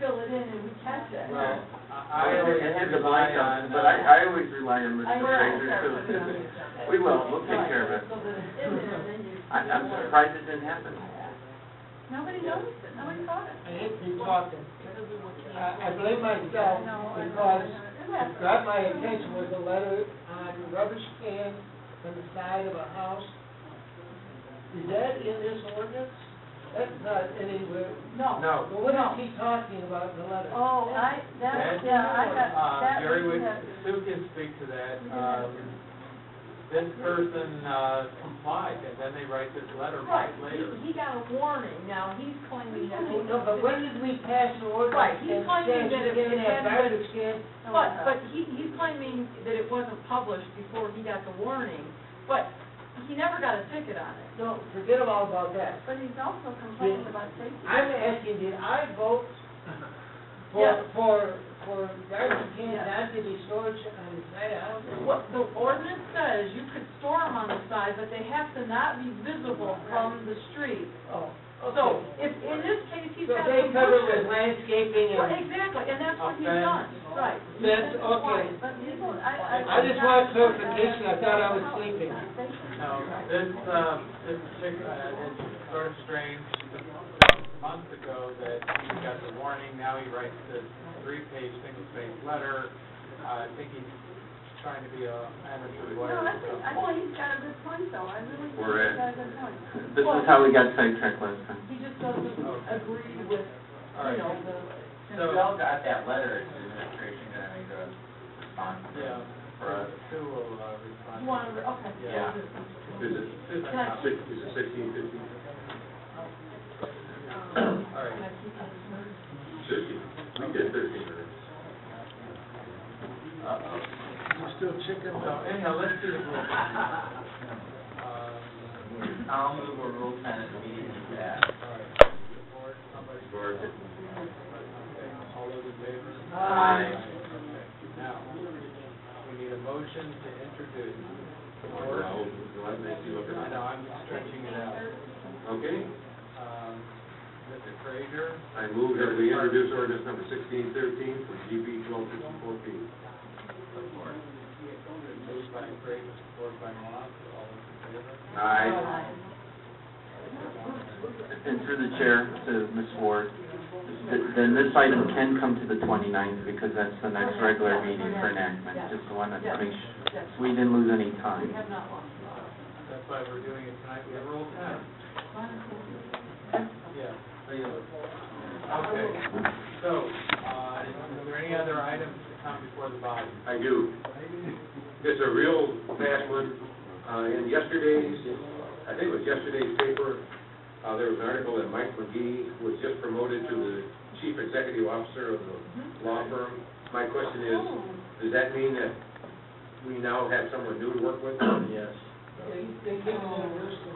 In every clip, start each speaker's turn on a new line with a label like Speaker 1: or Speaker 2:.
Speaker 1: fill it in and we catch it.
Speaker 2: Well,
Speaker 3: I
Speaker 2: I, I always
Speaker 3: understand the
Speaker 2: rely on,
Speaker 3: but I, I always rely on
Speaker 1: I
Speaker 3: Mr.
Speaker 1: will
Speaker 3: Fraser
Speaker 1: start putting it on the
Speaker 3: too.
Speaker 1: agenda.
Speaker 3: We will, we'll take care of it.
Speaker 1: So that it's in there, then you.
Speaker 3: I, I'm surprised it didn't happen.
Speaker 1: Nobody noticed it, nobody caught it.
Speaker 2: I hate to be talking. I, I blame myself because what grabbed my attention was a letter on rubbish cans on the side of a house. Is that in this ordinance? That's not anywhere.
Speaker 1: No.
Speaker 2: Well, what is he talking about in the letter?
Speaker 1: Oh, I, that,
Speaker 4: That's-
Speaker 1: yeah, I got, that.
Speaker 4: Uh, Jerry, would-
Speaker 1: that-
Speaker 4: Sue can speak to that. Um, This person uh, complied, and then they write this letter
Speaker 1: Right,
Speaker 4: months later.
Speaker 1: he, he got a warning, now he's claiming that.
Speaker 2: Oh, No, but when did we pass the ordinance?
Speaker 1: Right, he's claiming that it-
Speaker 2: That you
Speaker 1: it
Speaker 2: can't have
Speaker 1: had-
Speaker 2: garbage cans.
Speaker 1: But, but he, he's claiming that it wasn't published before he got the warning, but he never got a ticket on it.
Speaker 2: No, forget all about that.
Speaker 1: But he's also
Speaker 2: complaining
Speaker 1: about safety.
Speaker 2: I'm asking, did I vote
Speaker 1: Yes.
Speaker 2: for, for, for garbage cans
Speaker 1: Yes.
Speaker 2: not to be stored on the side of the house?
Speaker 1: What the ordinance says, you could store them on the side, but they have to not be visible from the street.
Speaker 2: Oh,
Speaker 1: So,
Speaker 2: okay.
Speaker 1: if, in this case, he's
Speaker 2: So
Speaker 1: got
Speaker 2: they
Speaker 1: some
Speaker 2: cover it with
Speaker 1: bushes.
Speaker 2: landscaping
Speaker 1: Well,
Speaker 2: and,
Speaker 1: Exactly, and that's what he's
Speaker 4: Offense.
Speaker 1: done, right.
Speaker 2: That's okay.
Speaker 1: But people, I, I.
Speaker 2: I just want clarification, I thought I was sleeping.
Speaker 4: No, this, uh, this particular, uh, it's sort of strange, months ago that he got the warning, now he writes this three-page, single-page letter. Uh, I think he's trying to be a
Speaker 1: No,
Speaker 4: amateur lawyer.
Speaker 1: I think, I think he's got a good point though, I really think
Speaker 3: We're
Speaker 1: he's
Speaker 3: in.
Speaker 1: got a good point.
Speaker 3: This is how we got sidetracked last time.
Speaker 1: He just doesn't agree with, you
Speaker 4: All right.
Speaker 1: know, the.
Speaker 4: So-
Speaker 5: We all got that letter, it's administration, and I think that was
Speaker 4: Yeah.
Speaker 5: responsible for us.
Speaker 4: Sue will uh, respond.
Speaker 1: You want to, okay.
Speaker 4: Yeah. Susan,
Speaker 1: Can I-
Speaker 4: all
Speaker 6: Is it sixteen fifteen?
Speaker 4: right.
Speaker 6: Fifteen. We did thirteen minutes.
Speaker 4: Uh-oh.
Speaker 6: We're still chicken.
Speaker 4: So anyhow, let's do the Uh, roll.
Speaker 5: I'll move a rule ten as immediately passed.
Speaker 4: Or somebody,
Speaker 6: Or
Speaker 4: okay, all those in favor?
Speaker 2: Aye.
Speaker 4: Okay, Now, we need a motion to introduce.
Speaker 6: or I'll, I'll make you look
Speaker 4: I
Speaker 6: at it.
Speaker 4: know, I'm stretching it out.
Speaker 6: Okay,
Speaker 4: Um, Mr. Frazier,
Speaker 6: I move that we introduce ordinance number sixteen thirteen for GB twelve fifty-four P.
Speaker 4: support. Moved by Frazier, supported by Moss, all those in favor?
Speaker 6: Aye.
Speaker 3: And through the chair to Ms. Ward, th- then this item can come to the 29th because that's the next regular meeting for enactment. Just wanted to make sure, so we didn't lose any time.
Speaker 1: We have not lost.
Speaker 4: That's why we're doing it tonight, we have rule ten. Yeah. Okay, so, uh, is there any other items to come before the body?
Speaker 6: I do. It's a real fast one. Uh, in yesterday's, I think it was yesterday's paper, uh, there was an article that Mike McGee was just promoted to the chief executive officer of the law firm. My question is, does that mean that we now have someone new to work with?
Speaker 7: Yes.
Speaker 2: they, they came on the rooster.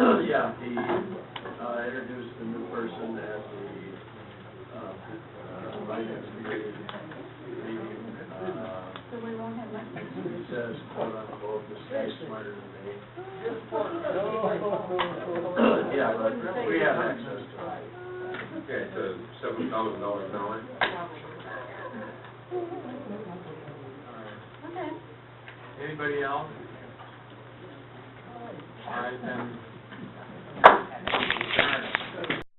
Speaker 1: Oh,
Speaker 7: Yeah, he uh, introduced the new person as the uh, uh, finance committee. Uh,
Speaker 1: So we won't have much.
Speaker 7: He says, quote unquote, the state's smarter than me. Yeah, but we have access to it.
Speaker 6: Okay, it's a seven thousand dollars an hour.
Speaker 1: Okay.
Speaker 4: Anybody else? All right, then,